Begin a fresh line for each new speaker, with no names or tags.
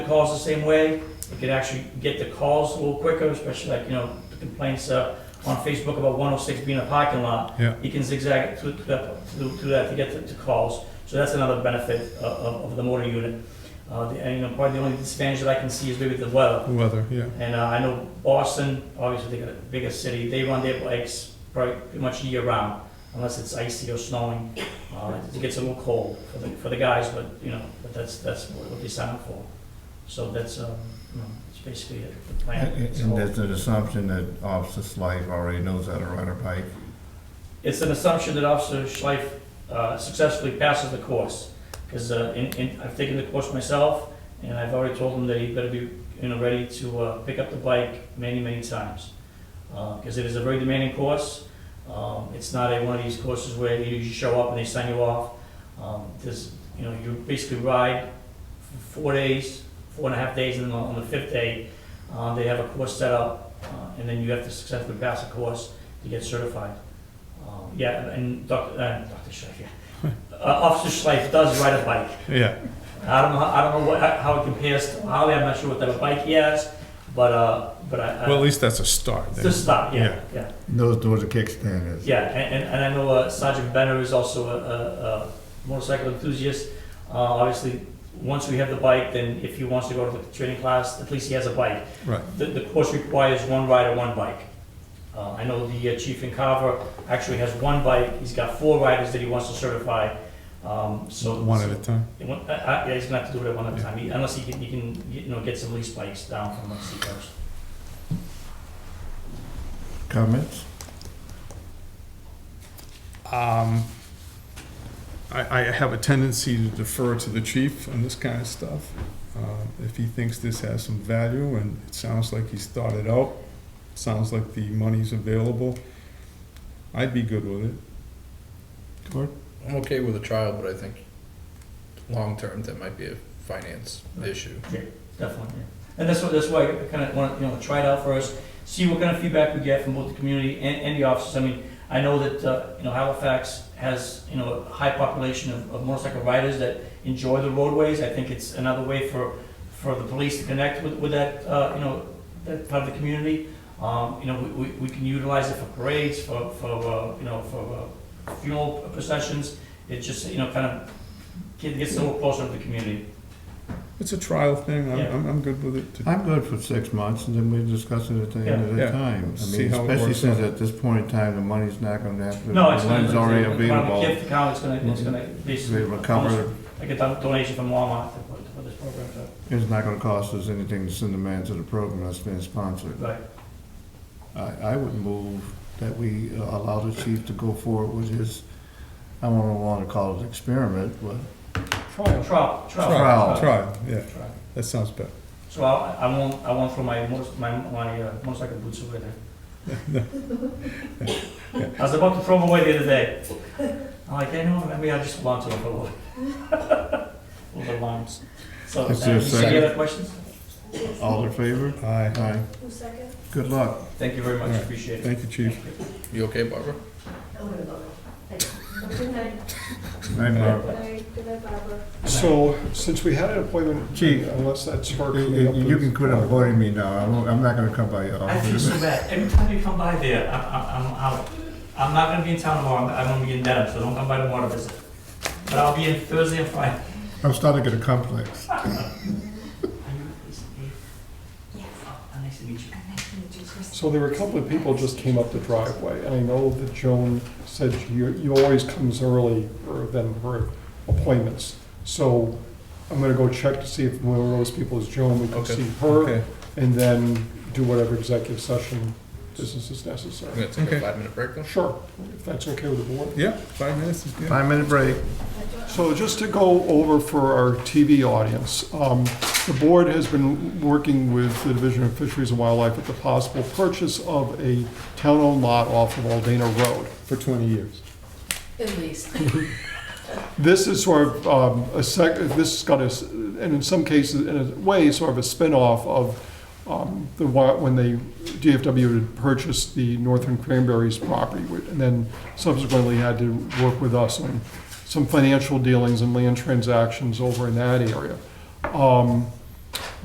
calls the same way. It could actually get the calls a little quicker, especially like, you know, the complaints uh, on Facebook about 106 being a parking lot.
Yeah.
You can zigzag it through, through that- through through that to get to- to calls. So that's another benefit uh, of- of of the motor unit. Uh, the- And, you know, probably the only disadvantage that I can see is maybe the weather.
Weather, yeah.
And uh, I know Boston, obviously they got a bigger city, they run their bikes probably pretty much year round, unless it's icy or snowing. Uh, It gets a little cold for the, for the guys, but, you know, but that's, that's what what they sign up for. So that's, um, you know, it's basically it, the plan.
And
So
and that's an assumption that Officer Slife already knows how to ride a bike.
It's an assumption that Officer Schleif uh, successfully passes the course, because I've taken the course myself, and I've already told him that he better be, you know, ready to uh, pick up the bike many, many times, because it is a very demanding course. Um, It's not a, one of these courses where you just show up and they sign you off. Um, There's, you know, you basically ride for four days, four and a half days, and then on on the fifth day, uh, they have a course set up, uh, and then you have to successfully pass the course to get certified. Um, Yeah, and Dr., uh, Dr. Schleif, yeah. Uh, Officer Schleif does ride a bike.
Yeah,
I don't know, I don't know what, how it compares to Harley, I'm not sure what type of bike he has, but, uh, but I- I.
well, at least that's a start
It's
then.
a start, yeah, yeah.
Knows where the kickstand is.
Yeah, and, and, and I know uh, Sergeant Benner is also a, a, a motorcycle enthusiast. Uh, obviously, once we have the bike, then if he wants to go to the training class, at least he has a bike.
Right.
The, the course requires one rider, one bike. Uh, I know the uh, chief in Carver actually has one bike. He's got four riders that he wants to certify. Um, so
One at a time.
I, I, yeah, he's gonna have to do it at one at a
Yeah.
time, He- unless he can, he can, you know, get some lease bikes down from the seacoast.
Comments?
Um, I, I have a tendency to defer to the chief on this kind of stuff. Um, If he thinks this has some value, and it sounds like he's thought it out, sounds like the money's available, I'd be good with it. Gord?
I'm okay with a trial, but I think long term that might be a finance issue.
Definitely, yeah. And that's what, that's why I kind of want, to you know, try it out first, see what kind of feedback we get from both the community and, and the officers. I mean, I know that, uh, you know, Halifax has, you know, a high population of, of motorcycle riders that enjoy the roadways. I think it's another way for, for the police to connect with, with that, uh, you know, that part of the community. Um, you know, we, we, we can utilize it for parades, for, for, uh, you know, for uh, funeral processions. It just, you know, kind of get- gets a little closer to the community.
It's a trial thing, I'm,
Yeah.
I'm, I'm good with it. to-
I'm good for six months, and then we discuss it at the end of
Yeah.
the
Yeah.
time. I
See
mean,
how it
especially
works
since
out.
at this point in time, the money's not gonna have to.
No, it's
the
gonna,
money's already
it's gonna-
available.
If the county's gonna, it's gonna
We
basically, almost
recover,
like a don- donation from Walmart to put, to put this program to,
it's not gonna cost us anything to send a man to the program that's been sponsored.
right,
I, I would move that we uh, allow the chief to go forward with his, I don't want to call it experiment, but
trial, trial,
Trial.
trial.
Trial, yeah,
trial.
that sounds better.
So I, I won't, I won't throw my motor, my, my uh, motorcycle boots away there. I was about to throw them away the other day. I'm like, hey, no, maybe I just want to throw them away. All the lines. So, uh,
Is there a
any
second?
other questions?
all in favor?
Aye,
Aye.
Who's second?
Good luck.
Thank you very
All
much,
right.
appreciate it.
thank you, chief.
You okay, Barbara?
I'm gonna go. Thank you. Good night,
Aye, Bob.
good night, good night, Barbara.
So, since we had an appointment,
Chief,
unless that's hard.
You you- you can quit avoiding me now. I won't- I'm not going to come by your
I feel
office.
so bad. Every time you come by there, I'm, I'm, I'm out. I'm not gonna be in town tomorrow, I'm- I'm gonna be in Dedham, so don't come by tomorrow to visit. But I'll be in Thursday and Friday.
I'm starting to get a complex.
Are you, is Dave? Yes. Oh, Nice to meet you.
So there were a couple of people just came up the driveway, and I know that Joan said you, you always comes early for- than her appointments. So I'm gonna go check to see if one of those people is Joan, we can
Okay.
see
Okay,
her, and then do whatever executive session business is
I'm
necessary.
gonna take
Okay.
a five minute break then.
Sure, if that's okay with the board.
yeah, five minutes is good.
Five-minute break.
So just to go over for our TV audience, um, the board has been working with the Division of Fisheries and Wildlife at the possible purchase of a town-owned lot off of Aldana Road.
For twenty years.
At least.
This is sort of um, a sec, this has got a, s- and in some cases, in a way, sort of a spin-off of um, the, wa- when they, DFW had purchased the Northern Cranberries property, wi- and then subsequently had to work with us on some financial dealings and land transactions over in that area. Um,